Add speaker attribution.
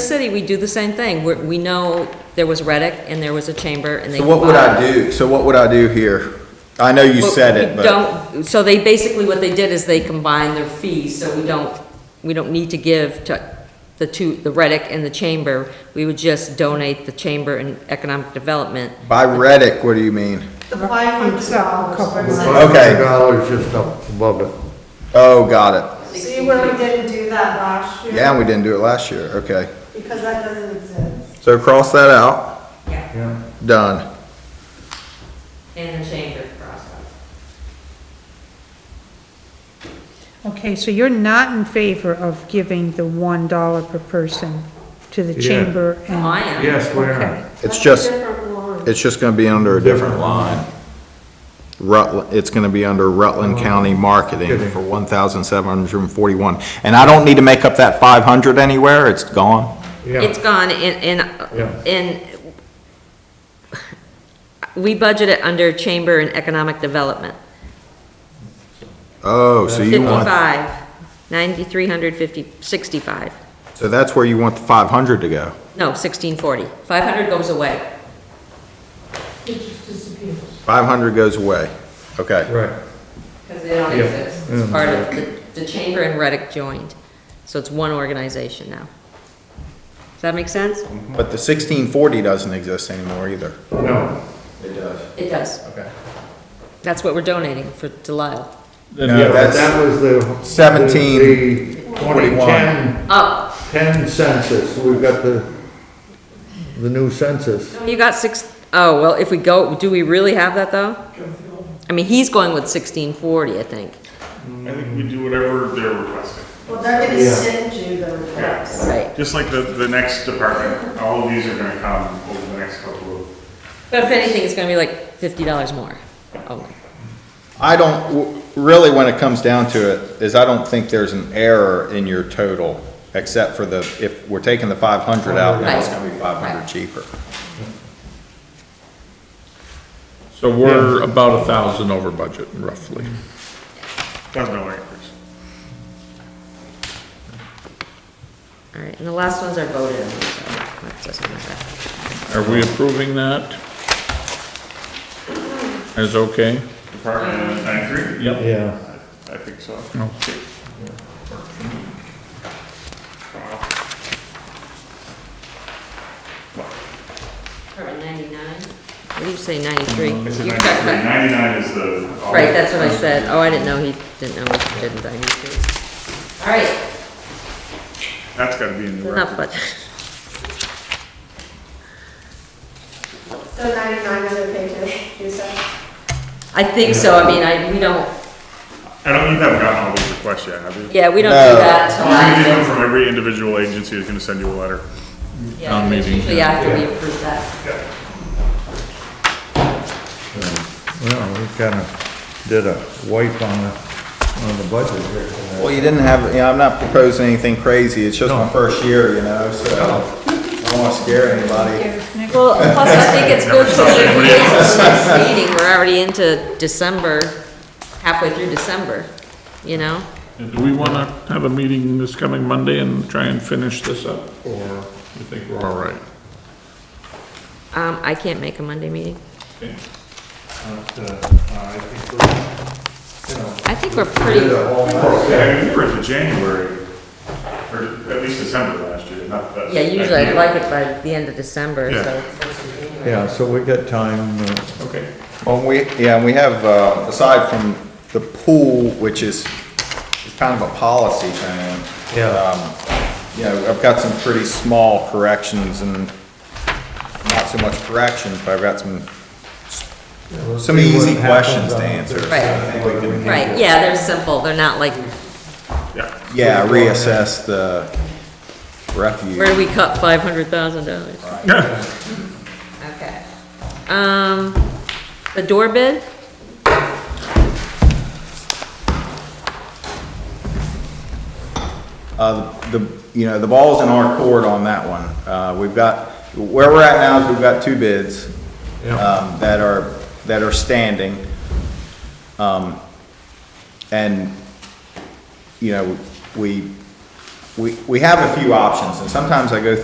Speaker 1: city, we do the same thing. We're, we know there was Reddick and there was a chamber and they.
Speaker 2: So what would
Speaker 1: combined.
Speaker 2: I do, so what would I do here? I know you
Speaker 1: Well,
Speaker 2: said
Speaker 1: we
Speaker 2: it, but,
Speaker 1: Don't, so they, basically what they did is they combined their fees, so we don't, we don't need to give to the two, the Reddick and the Chamber. We would just donate the Chamber and Economic Development.
Speaker 2: by Reddick, what do you mean?
Speaker 3: The five hundred dollars.
Speaker 2: Okay.
Speaker 4: Five dollars just up above it.
Speaker 2: Oh, got
Speaker 3: See where we didn't do that last
Speaker 2: it.
Speaker 3: year?
Speaker 2: Yeah, and we didn't do it last year, okay.
Speaker 3: Because that doesn't exist.
Speaker 2: So cross that out,
Speaker 4: Yeah.
Speaker 2: done.
Speaker 1: And the Chamber process.
Speaker 5: Okay, so you're not in favor of giving the one dollar per person to the
Speaker 4: Yeah.
Speaker 5: chamber and?
Speaker 1: I am.
Speaker 4: Yes, we
Speaker 5: Okay.
Speaker 4: are.
Speaker 3: That's
Speaker 2: It's
Speaker 3: a
Speaker 2: just,
Speaker 3: different line.
Speaker 2: it's just gonna be under a different line. Rutland, it's gonna be under Rutland
Speaker 3: Oh.
Speaker 2: County Marketing for one thousand seven hundred and forty-one. And I don't need to make up that five hundred anywhere, it's gone.
Speaker 4: Yeah,
Speaker 1: It's gone, and, and,
Speaker 4: Yeah.
Speaker 1: and we budget it under Chamber and Economic Development.
Speaker 2: Oh, so you want,
Speaker 1: 55, 9,350, 65,
Speaker 2: so that's where you want the five hundred to go.
Speaker 1: no, 1640. 500 goes away.
Speaker 2: Five hundred goes away, okay.
Speaker 4: right.
Speaker 1: Because they don't
Speaker 4: Yeah.
Speaker 1: exist. It's part of, the the Chamber and Reddick joined, so it's one organization now. Does that make sense?
Speaker 2: But the sixteen forty doesn't exist anymore either.
Speaker 4: No.
Speaker 2: It does.
Speaker 1: It does.
Speaker 2: Okay.
Speaker 1: That's what we're donating for Delisle.
Speaker 2: Yeah,
Speaker 4: Yeah, but
Speaker 2: that's
Speaker 4: that was the.
Speaker 2: 17,
Speaker 4: the- the
Speaker 2: 21.
Speaker 4: 2010
Speaker 1: Oh,
Speaker 4: 10 census, we've got the, the new census.
Speaker 1: you got six, oh, well, if we go, do we really have that, though? I mean, he's going with 1640, I think.
Speaker 6: I think we do whatever they're requesting.
Speaker 3: Well, they're gonna
Speaker 4: Yeah.
Speaker 3: send you the request.
Speaker 1: Right.
Speaker 6: Just like the, the next department, all of these are gonna come over the next couple of,
Speaker 1: But if anything, it's gonna be like $50 more. Oh,
Speaker 2: I don't, w- really, when it comes down to it, is I don't think there's an error in your total, except for the, if we're taking the five hundred out, now it's
Speaker 1: Right.
Speaker 2: gonna be five
Speaker 1: Right.
Speaker 2: hundred cheaper.
Speaker 7: So we're about a thousand over budget roughly.
Speaker 6: that's no increase.
Speaker 1: All right, and the last ones are voted on, so that doesn't matter.
Speaker 7: Are we approving that? As okay?
Speaker 1: Mm-hmm.
Speaker 6: Department nine three?
Speaker 7: Yep.
Speaker 4: Yeah.
Speaker 6: I think so.
Speaker 1: Department 99? What do you say, 93?
Speaker 6: I said
Speaker 1: You
Speaker 6: 93.
Speaker 1: cut- cut-
Speaker 6: 99 is the. all-
Speaker 1: Right, that's what I said. Oh, I didn't know he, didn't know he didn't, I need to. All right,
Speaker 6: That's gotta be in the
Speaker 1: enough,
Speaker 6: record.
Speaker 1: but,
Speaker 3: So ninety-nine is okay too, you said?
Speaker 1: I think so, I mean, I, we don't,
Speaker 6: I don't, you haven't gotten all these requests yet, have you?
Speaker 1: yeah, we don't
Speaker 2: No.
Speaker 1: do that until
Speaker 6: Usually they come
Speaker 1: after.
Speaker 6: from every individual agency is gonna send you a letter.
Speaker 1: Yeah,
Speaker 7: Town
Speaker 1: it's
Speaker 7: meeting,
Speaker 1: Usually
Speaker 7: yeah.
Speaker 1: after we approve that.
Speaker 4: Well, we kind of did a wipe on the, on the budget here. tonight.
Speaker 2: Well, you didn't have, you know, I'm not proposing anything crazy, it's just my first year, you know, so I don't wanna scare anybody.
Speaker 1: Well, plus I think it's good because if we get to the next meeting, we're already into December, halfway through December, you know?
Speaker 7: And do we want to have a meeting this coming Monday and try and finish this up? Or you think we're all right?
Speaker 1: Um, I can't make a Monday meeting.
Speaker 4: But, uh, I think
Speaker 1: I think we're pretty,
Speaker 6: Yeah, you were into January, or at least December last year, not uh, the.
Speaker 1: yeah, usually I'd like it by the end of December,
Speaker 6: Yeah.
Speaker 1: so.
Speaker 4: we're- Yeah, so we got time, uh,
Speaker 7: Okay.
Speaker 2: Well, we, yeah, and we have, uh, aside from the pool, which is, is kind of a policy thing.
Speaker 4: Yeah.
Speaker 2: um, You know, I've got some pretty small corrections and not so much corrections, but I've got some, some
Speaker 4: see what
Speaker 2: easy questions
Speaker 4: happens
Speaker 2: to
Speaker 4: on-
Speaker 2: answer.
Speaker 1: Right, right, yeah, they're simple, they're not like,
Speaker 6: Yeah.
Speaker 2: Yeah, reassess the refuge.
Speaker 1: where do we cut five hundred thousand dollars? Okay. Um, the door bid?
Speaker 2: Uh, the, you know, the ball's in our court on that one. Uh, we've got, where we're at now is we've got two bids, um, that are, that are standing. Um, and, you know, we, we, we have a few options, and sometimes I go through